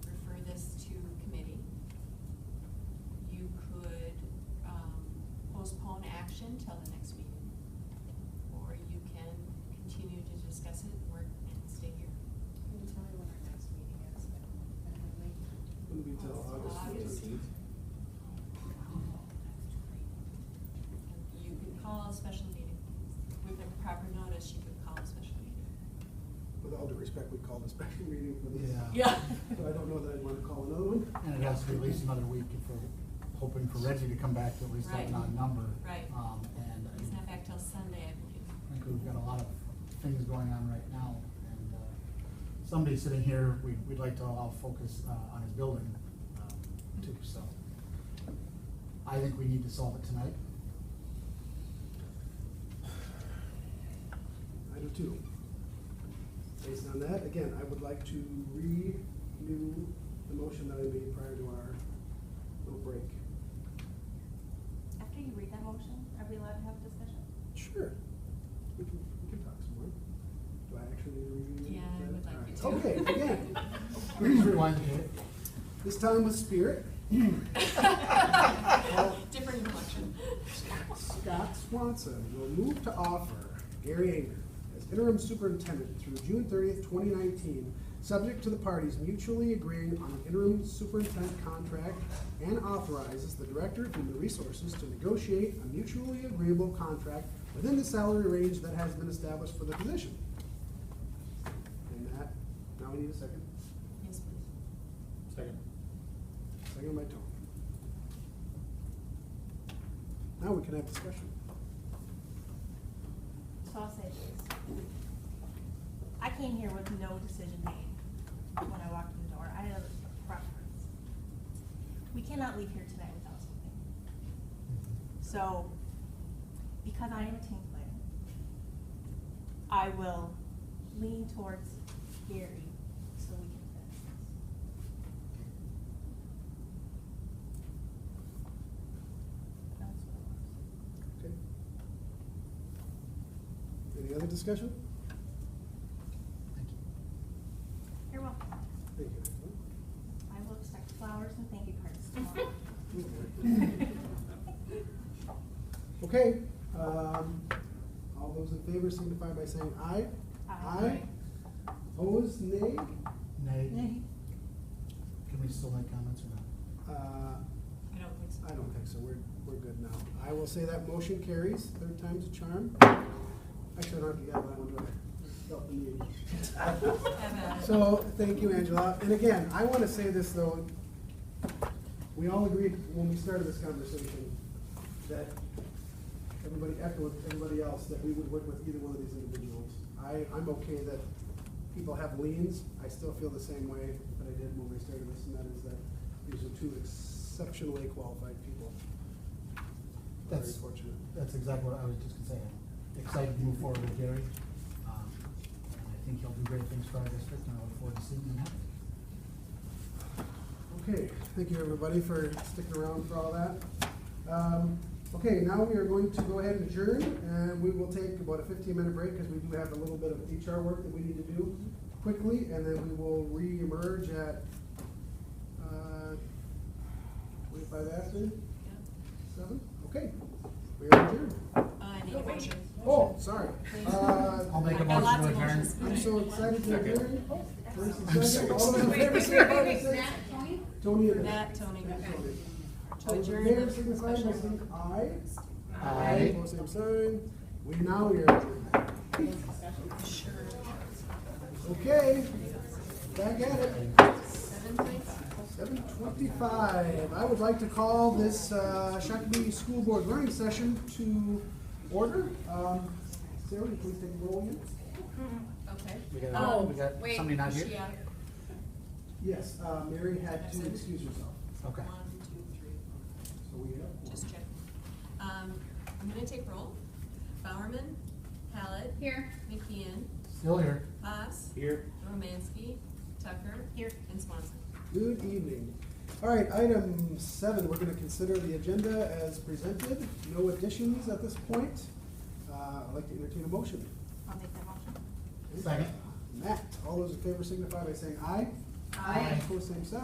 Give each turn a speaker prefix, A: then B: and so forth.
A: um,
B: Wouldn't be till August fifteenth.
A: You could call a special meeting. With the proper notice, you could call a special meeting.
B: With all due respect, we called a special meeting for this.
C: Yeah.
A: Yeah.
B: So I don't know that I'd wanna call another one.
C: And it has to be at least another week if we're hoping for Reggie to come back to at least have an odd
A: Right.
C: number.
A: Right.
C: Um, and I
A: He's not back till Sunday, I believe.
C: think we've got a lot of things going on right now. And, uh, somebody sitting here, we, we'd like to allow focus, uh, on his building, um, too, so. I think we need to solve it tonight.
B: I do too. Based on that, again, I would like to renew the motion that I made prior to our little break.
D: After you read that motion, are we allowed to have a discussion?
B: Sure. We can, we can talk some more. Do I actually need to read?
A: Yeah, I would like you to.
B: Okay, again,
C: Please rewind it.
B: this time with spirit.
A: Different collection.
B: Scott Swanson will move to offer Gary Anger as interim superintendent through June thirtieth, twenty nineteen, subject to the parties mutually agreeing on an interim superintendent contract and authorizes the director of human resources to negotiate a mutually agreeable contract within the salary range that has been established for the position. And that, now we need a second,
A: Yes, please.
E: Second.
B: second by Tony. Now we can have discussion.
D: So I'll say this. I came here with no decision made when I walked in the door. I had a preference. We cannot leave here tonight without something.
C: Mm-hmm.
D: So, because I am a team player, I will lean towards Gary so we can finish this. That's what I want to say.
B: Okay. Any other discussion?
C: Thank you.
D: You're welcome.
B: Thank
D: I will expect flowers and thank you cards tomorrow.
B: you. Okay, um, all those in favor signify by saying aye.
D: Aye.
B: Aye. Opposed, nay?
C: Nay,
D: Nay.
C: can we still make comments or not?
B: Uh,
A: I don't think so.
B: I don't think so, we're, we're good now. I will say that motion carries, third time's a charm. Actually, I don't have to get that one, do I? Felt the need.
A: Have a-
B: So, thank you, Angela. And again, I want to say this, though. We all agreed when we started this conversation that everybody echoed everybody else that we would work with either one of these individuals. I, I'm okay that people have liens. I still feel the same way that I did when we started this, and that is that these are two exceptionally qualified people. Very
C: That's-
B: fortunate.
C: That's exactly what I was just gonna say. I'm Excited to move forward with Gary. Um, and I think he'll do great things for our district and I look forward to seeing him happen.
B: Okay, thank you, everybody, for sticking around for all that. Um, Okay, now we are going to go ahead and adjourn, and we will take about a fifteen-minute break, because we do have a little bit of HR work that we need to do quickly, and then we will re-emerge at, uh, twenty-five after,
A: Yeah.
B: seven? Okay, we are adjourned.
A: Uh, I need a motion.
B: Oh, sorry. Uh,
C: I'll make a
A: I've got lots
C: motion
A: of
C: to adjourn.
A: motions.
B: I'm so excited to
E: Second.
B: adjourn. Oh, first and
C: I'm so
B: second. All those in
A: excited.
B: favor,
A: Wait,
B: signify by
A: wait, wait, wait.
B: saying- Tony and.
A: Matt, Tony.
B: Tony.
A: To
B: All those in
A: adjourn
B: favor,
A: the
B: signify by
A: special.
B: saying aye.
C: Aye.
B: Opposed, same sign. We now we are adjourned. Okay, back at it. Seven twenty-five. I would like to call this uh, Shakopee School Board Learning Session to order. Um, Sarah, would you please take a roll again?
A: Okay.
C: uh, We got-
A: Oh,
C: we got
A: wait,
C: somebody not
A: is
C: here?
A: she out?
B: Yes, uh, Mary had to
A: Absent.
B: excuse herself,
C: Okay.
A: One, two, three, four.
B: so we have.
A: Just check. Um, I'm gonna take roll. Bowerman, Hallett. Here. McKeon,
C: Still here.
A: Haas,
E: Here.
A: Romansky, Tucker. Here. And Swanson.
B: Good evening. All right, item seven, we're gonna consider the agenda as presented. No additions at this point. Uh, I'd like to entertain a motion.
D: I'll make that motion.
C: Second.
B: Matt, all those in favor signify by saying aye.
C: Aye.
B: Opposed, same sign.